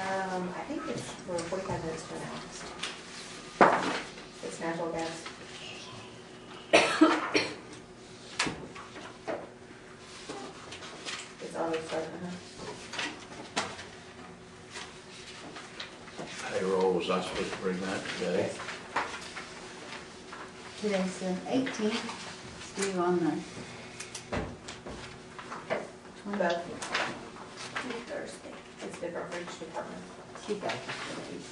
Um, uh-huh. payroll, was I supposed to bring that today? Today's the eighteenth, it's due on the twenty, Beth, Thursday. it's the garbage department. She got it today.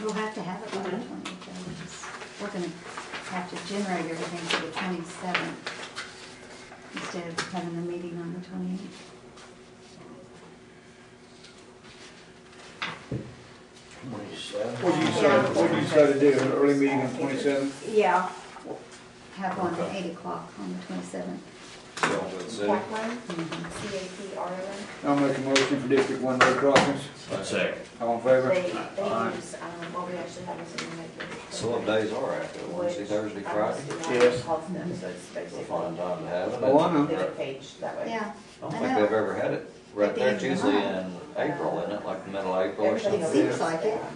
We'll have to have it by the Mhm. twentieth, we're gonna have to generate everything for the twenty-seventh instead of having the meeting on the twenty-eighth. Twenty-seven? What do you decide, what do you decide to do, an early meeting on twenty-seventh? Yeah. Have one at Okay. eight o'clock on the twenty-seventh. Parkland, C A P R O I'll make a motion for District One road crossings, One second. all in N. They, favor? they use, um, well, we actually have this in the making. So what days are after, Wednesday, Thursday, Friday? Yes. Calls them, so it's We'll basically. find a time to have it. Oh, I know. They get page that way. Yeah, I don't think they've ever had it right there, it's usually in April, isn't it, like the middle of April or Everybody something? It else seems is, like it. yeah.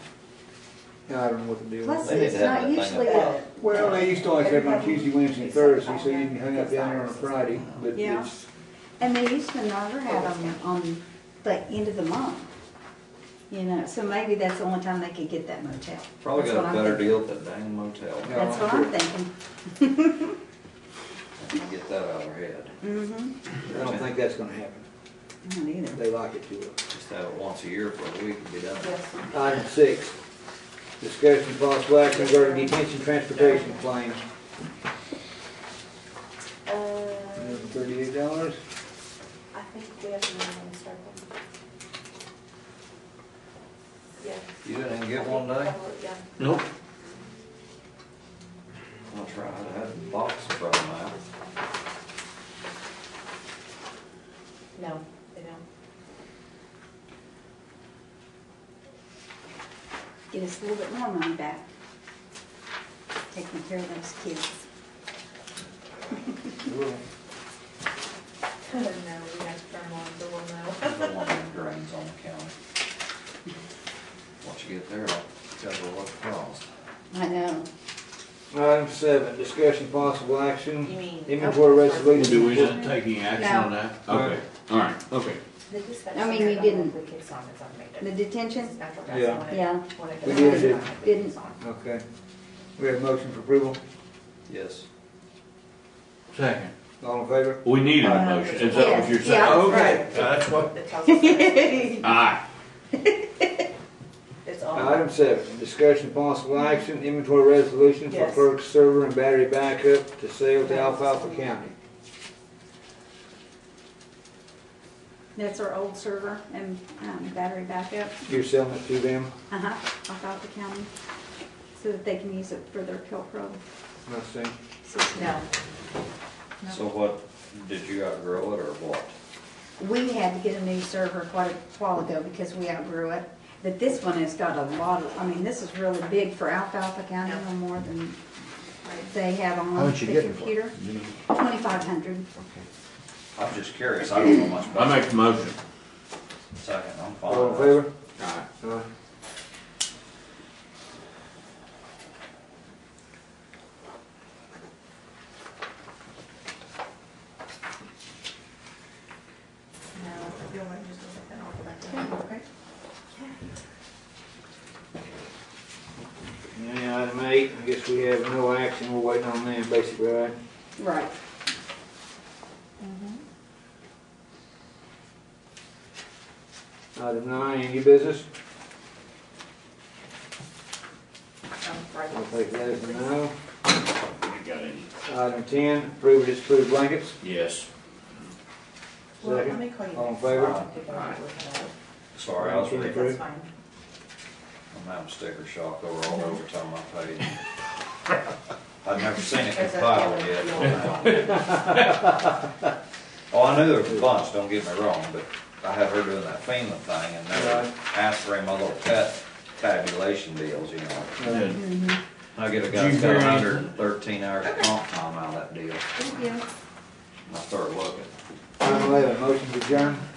Yeah, I don't know what the deal plus is. They need to it's have not that thing usually up. a Well, they used to always have it on Tuesday, Wednesday, and Thursday, so you can hang out down there on a Friday, but Yeah. it's, And they used to never have them on the end of the month, you know, so maybe that's the only time they could get that motel. Probably That's what got a I'm better thinking. deal at the dang motel, Yeah. That's what I'm thinking. You get that out of our head, Mm-hmm. I don't think that's gonna happen, I don't either. they like it too well. just have it once a year for a week and be done. Yes. Item six, discussion of possible action regarding detention transportation claims. Uh, Thirty-eight dollars? I think we have to run on circle. Yeah. You didn't even I get think one day? probably, Yeah. Nope. I'll try, I had a box from that. No, they don't. Get us a little bit more money back. Taking care of those kids. No, we have to turn on, so we'll know. There's a one in drains on the county. Once you get there, I'll tell you what it costs. I know. Item seven, discussion of possible action. You mean- Inventory resolution. Do we not take any action on that? No. Okay, all right, okay. The dispatch I mean, center, you don't didn't- know if we kicked on, it's on May The day. detention, Natural gas Yeah. on it, Yeah. when it We goes on, did it. I think Didn't. it's on. Okay. We have a motion for approval. Yes. Second. All in favor? We need a Uh, motion, is that what you're yes, saying? yeah, Okay, that's what, That tells us that aye, It's on. Item seven, discussion of possible action, inventory resolution for Yes. clerk server and battery backup to sale to Alfalfa County. that's our old server and um, battery backup, You're selling it to them? uh-huh, off out the county, so that they can use it for their Pilcro I see. system. No, No. So what, did you outgrow it or what? We had to get a new server quite a while ago because we outgrew it. But this one has got a lot of, I mean, this is really big for Alfalfa County, no more than they have on How the much you getting for computer. Twenty-five hundred. I'm just curious, I don't know much about it. I make the motion. Second, I'm fine. All in favor? Aye. Aye. no, you don't want to just look at that off the back of it, okay? And item eight, I guess we have no action, we're waiting on them basically, right? Right. Item nine, any business? Um, right. I'll take that as a no. You got any? Item ten, approve or disapprove blankets. Yes. Well, let Second. me call you All in next. favor? I'll take over Aye. with that. Sorry, I was Okay. reading, That's Approve. fine. I'm having sticker shock over all the overtime I paid. I've never seen it There's a- compiled yet. Oh, I knew there was a bunch, don't get me wrong, but I had her doing that FEMA thing and never Right. asked for any of my little cut tabulation deals, you know. Good. I get a Did guy's you got hear hundred and thirteen hours of comp time out of that deal, Thank you. and I started looking. Item eleven, motion to adjourn.